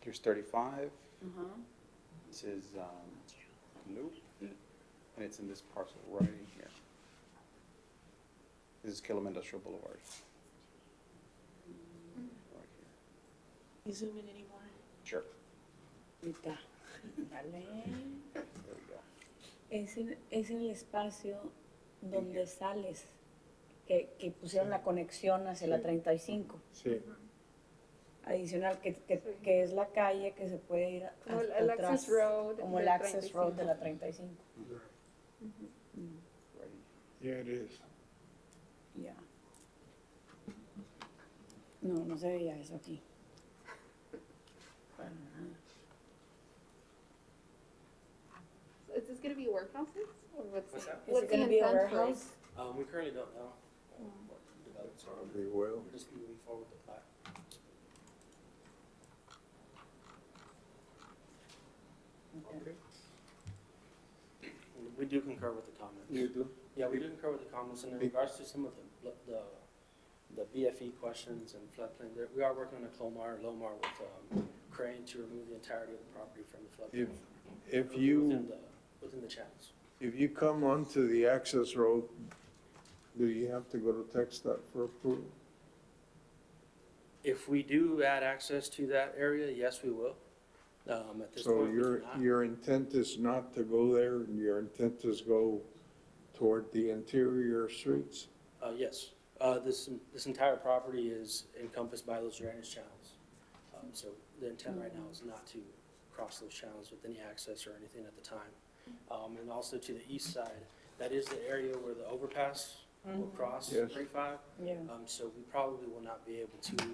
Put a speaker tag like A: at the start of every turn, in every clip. A: Here's thirty-five,
B: Uh-huh.
C: Mm-hmm.
A: this is, um, nope,
C: Mm.
A: and it's in this parcel right in here. This is Killam Industrial Boulevard. Right here.
C: You zoom in anymore?
A: Sure,
C: Ahí está. Vale.
A: there we go.
C: Es en, es en el espacio donde sales, que, que pusieron la conexión hacia la 35.
D: Sí,
C: Adicional, que, que, que es la calle que se puede ir
B: Como el-
C: hasta
B: el
C: atrás,
B: access road
C: Como el
B: del
C: access road de
B: 35.
C: la 35.
A: Right in here.
D: yeah, it is.
C: Ya. No, no se veía eso aquí.
B: So Is this gonna be workhouses or what's?
E: What's that?
C: Is it gonna
B: the
C: be a
B: intent for it?
C: warehouse?
E: Um, we currently don't know. um, what the development's on.
D: Probably will.
E: We're just moving forward with the plat.
C: Okay.
E: We do concur with the comments.
D: do?
E: Yeah, we do concur with the comments, and in regards to some of the, bl- the, the BFE questions and floodplain, there, we are working on a Clomar, Lomar with, um, Crane to remove the entirety of the property from the floodplain.
D: If, if
E: within
D: you,
E: the- Within the channels.
D: if you come onto the access road, do you have to go to text that for approval?
E: If we do add access to that area, yes, we will. Um, at this
D: So
E: point, we do
D: your,
E: not.
D: your intent is not to go there, and your intent is go toward the interior streets?
E: Uh, yes, uh, this, this entire property is encompassed by those drainage channels. Um, so the intent right now is not to cross those channels with any access or anything at the time. Um, and also to the east side, that is the area where the overpass will cross
D: Yes.
E: thirty-five.
C: Mm-hmm. Yeah,
E: Um, so we probably will not be able to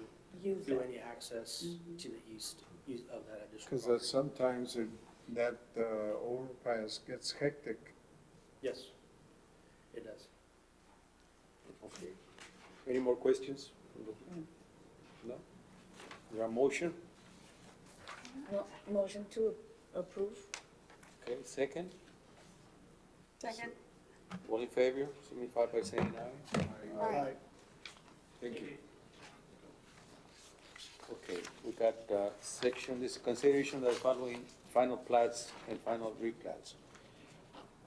C: use Mm-hmm.
E: do
C: it.
E: any access to the east, east of that additional
D: Because
E: property.
D: sometimes it- that uh, overpass gets hectic.
E: Yes, it does.
F: Okay. Any more questions? No? There are motion?
C: No, Motion to approve.
F: Okay, second.
B: Second.
F: All in favor, signify by saying aye.
B: Alright.
F: Thank you. Okay, we got, uh, section, this consideration of the following final plats and final replats.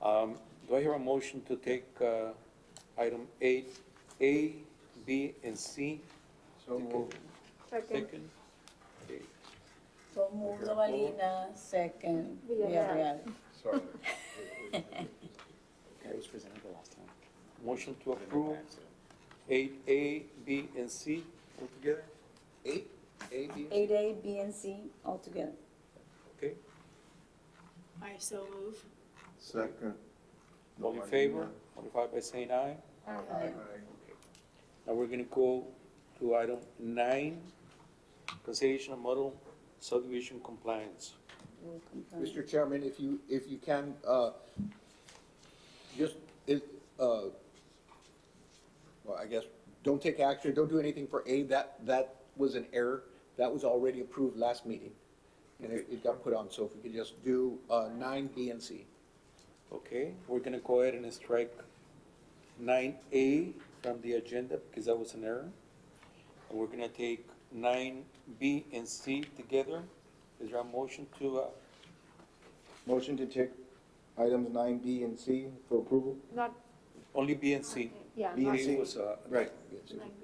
F: Um, do I hear a motion to take, uh, item eight, A, B, and C?
D: So moved.
B: Second.
F: Second? Okay.
C: So move the Valina, second, Villarreal.
B: Villarreal.
D: Sorry.
A: That was presented the last time.
F: Motion to approve eight A, B, and C altogether? Eight, A, B, and C?
C: Eight A, B, and C altogether.
F: Okay,
G: I so move.
D: Second.
F: all in favor, notify by saying aye.
D: Aye.
F: Now we're gonna go to item nine, consideration of model subdivision compliance.
C: We'll confirm.
H: Mr. Chairman, if you, if you can, uh, just, it, uh, well, I guess, don't take action, don't do anything for A, that, that was an error. That was already approved last meeting, and it, it got put on, so if we could just do, uh, nine B and C.
F: Okay, we're gonna go ahead and strike nine A from the agenda because that was an error. And we're gonna take nine B and C together. Is there a motion to, uh,
I: Motion to take items nine B and C for approval?
B: Not,
F: only B and C?
B: yeah,
I: B
B: not-
I: and
F: B
I: C.
F: was, uh,
I: Right.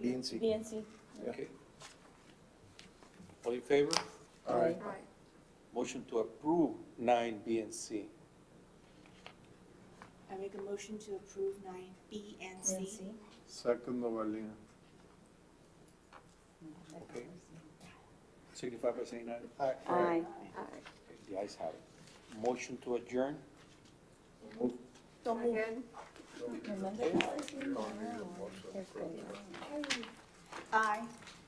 I: B and C.
C: B and C.
F: Okay. All in favor?
C: Aye.
B: Alright.
F: Motion to approve nine B and C.
G: I make a motion to approve nine B and
C: B and
G: C.
C: C.
D: Second, Novalina.
F: Okay. Signify by saying aye.
C: Aye.
F: The ayes have it. Motion to adjourn?
C: So move.
B: Second.
C: Remember, that was in there. Perfect.
G: Aye.